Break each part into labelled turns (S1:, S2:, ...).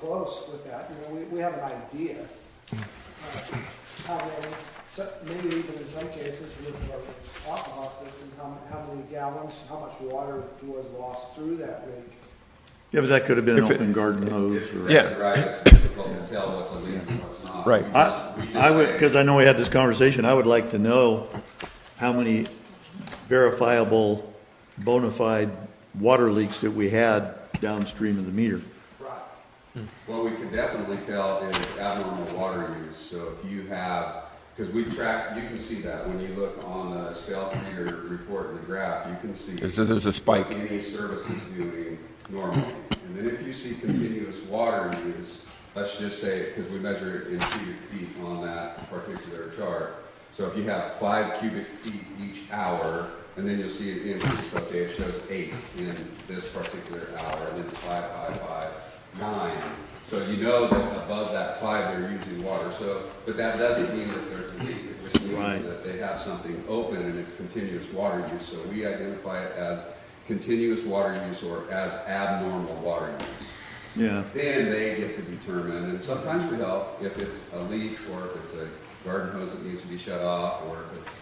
S1: close with that, you know, we, we have an idea. uh, How many, so, maybe even in some cases with our alcohol system, how, how many gallons, how much water was lost through that leak?
S2: Yeah, but that could have been an
S3: If it-
S2: open garden hose or.
S3: Yeah.
S4: That's right, it's difficult to tell what's illegal and what's not.
S3: Right.
S4: We just- we
S2: I,
S4: just
S2: I would,
S4: say-
S2: because I know we had this conversation, I would like to know how many verifiable, bona fide water leaks that we had downstream of the meter.
S1: Right.
S4: What we can definitely tell is abnormal water use, so if you have, because we track, you can see that when you look on the stealth meter report in the graph, you can see.
S3: There's, there's a spike.
S4: what Any service is doing normally, and then if you see continuous water use, let's just say, because we measure it in cubic feet on that particular chart. So if you have five cubic feet each hour, and then you'll see it increase, okay, it shows eight in this particular hour, and then five, five, five, nine. So you know that above that five, they're using water, so, but that doesn't mean that there's a leak. It just means
S2: Right.
S4: that they have something open and it's continuous water use. So we identify it as continuous water use or as abnormal water use
S2: Yeah,
S4: then they get to determine, and sometimes we help if it's a leak or if it's a garden hose that needs to be shut off or if it's.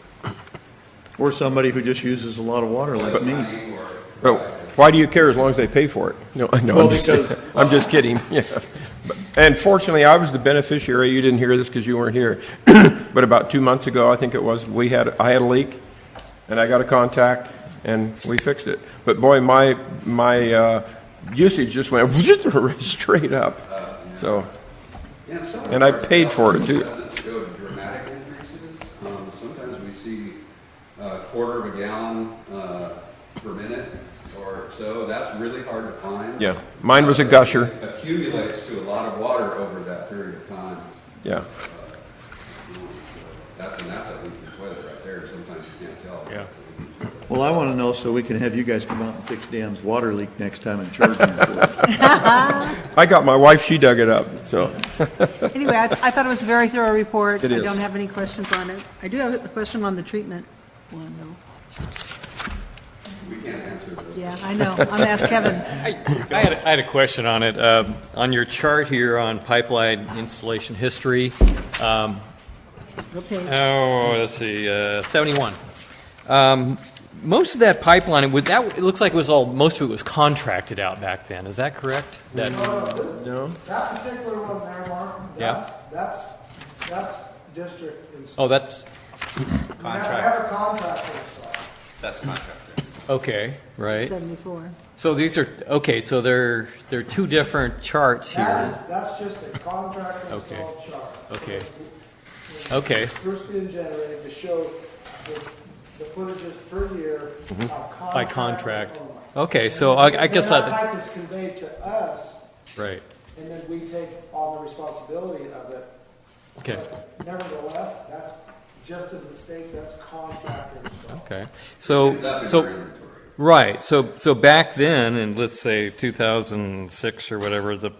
S2: or somebody who just uses a lot of water like me.
S4: lightning or-
S3: But why do you care as long as they pay for it? No, no,
S2: Well,
S3: I'm, just,
S2: because- uh,
S3: I'm just kidding. Yeah. But- And fortunately, I was the beneficiary. You didn't hear this because you weren't here. but about two months ago, I think it was, we had I had a leak, and I got a contact, and we fixed it. But boy, my my uh, usage just went straight up. So
S4: And some of
S3: And I
S4: our
S3: paid for it,
S4: problems
S3: too.
S4: doesn't Go to dramatic increases. Um, sometimes we see a quarter of a gallon, uh, per minute or so. That's really hard to find.
S3: yeah, mine was a gusher.
S4: Accumulates to a lot of water over that period of time.
S3: Yeah.
S4: That's, and that's a leak in weather right there. Sometimes you can't tell.
S3: Yeah.
S2: Well, I want to know so we can have you guys come out and fix Dan's water leak next time and charge him for it.
S3: I got my wife. She dug it up. So.
S5: Anyway, I, I thought it was a very thorough report.
S3: It
S5: I
S3: is.
S5: don't have any questions on it. I do have a question on the treatment one, though.
S4: We can't answer those.
S5: Yeah, I know. I'm gonna ask Kevin.
S6: I I had, I had a question on it. Um, On your chart here on pipeline installation history, um,
S5: Okay.
S6: oh, let's see, uh, 71. Um, Most of that pipeline, it would, that, it looks like it was all, most of it was contracted out back then, is that correct? That-
S1: Uh, That particular one there, Mark, that's,
S6: Yeah.
S1: that's, that's district installed.
S6: Oh, that's,
S1: They have a contractor installed.
S7: That's contractor.
S6: okay, right.
S5: 74.
S6: So these are, okay, so there, there are two different charts
S1: That
S6: here.
S1: is, that's just a contractor
S6: Okay.
S1: installed chart.
S6: Okay. Okay,
S1: Bruce being generated to show the, the footages per year by
S6: By contract.
S1: contract. only.
S6: Okay, so I- I guess
S1: Then
S6: I-
S1: that pipe is conveyed to us,
S6: right,
S1: and then we take on the responsibility of it.
S6: okay.
S1: But Nevertheless, that's, just as it states, that's contractor installed.
S6: Okay, so,
S4: It's up in your
S6: so,
S4: inventory.
S6: right, so, so back then, and let's say 2006 or whatever the,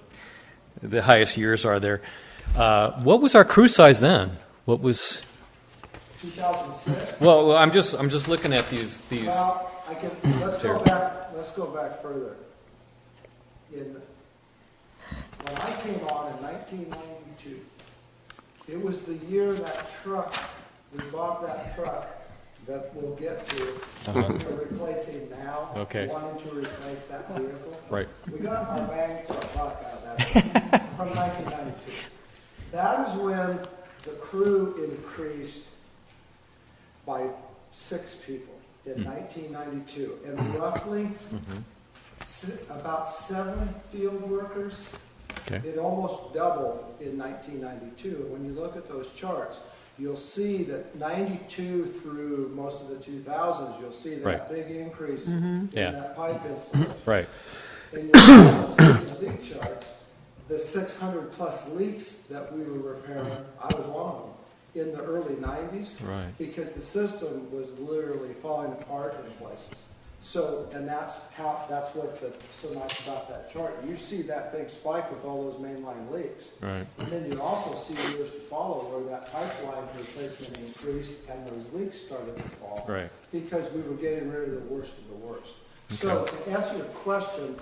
S6: the highest years are there, uh, what was our crew size then? What was,
S1: 2006,
S6: well, well, I'm just, I'm just looking at these, these,
S1: well, I can, let's go
S6: Terrible.
S1: back, let's go back further. In, when I came on in 1992, it was the year that truck, we bought that truck that we'll get to, to replace it now.
S6: Uh-huh. Okay.
S1: Wanting to replace that vehicle.
S6: right,
S1: We got my bang for a buck out of that, from nineteen ninety-two. That is when the crew increased by six people in nineteen ninety-two. And roughly, si- about seven field workers,
S6: okay,
S1: it almost doubled in nineteen ninety-two. When you look at those charts, you'll see that ninety-two through most of the two thousands, you'll see
S6: Right.
S1: that big increase in
S6: Yeah.
S1: that pipe installation
S6: right,
S1: in your policy and leak charts, the six hundred plus leaks that we were repairing, I was one of them, in the early nineties.
S6: Right.
S1: Because the system was literally falling apart in places. So, and that's how, that's what the, so nice about that chart, you see that big spike with all those mainline leaks.
S6: right.
S1: And then you also see years to follow where that pipeline replacement increased and those leaks started to fall.
S6: Right.
S1: Because we were getting rid of the worst of the worst. So to answer your question,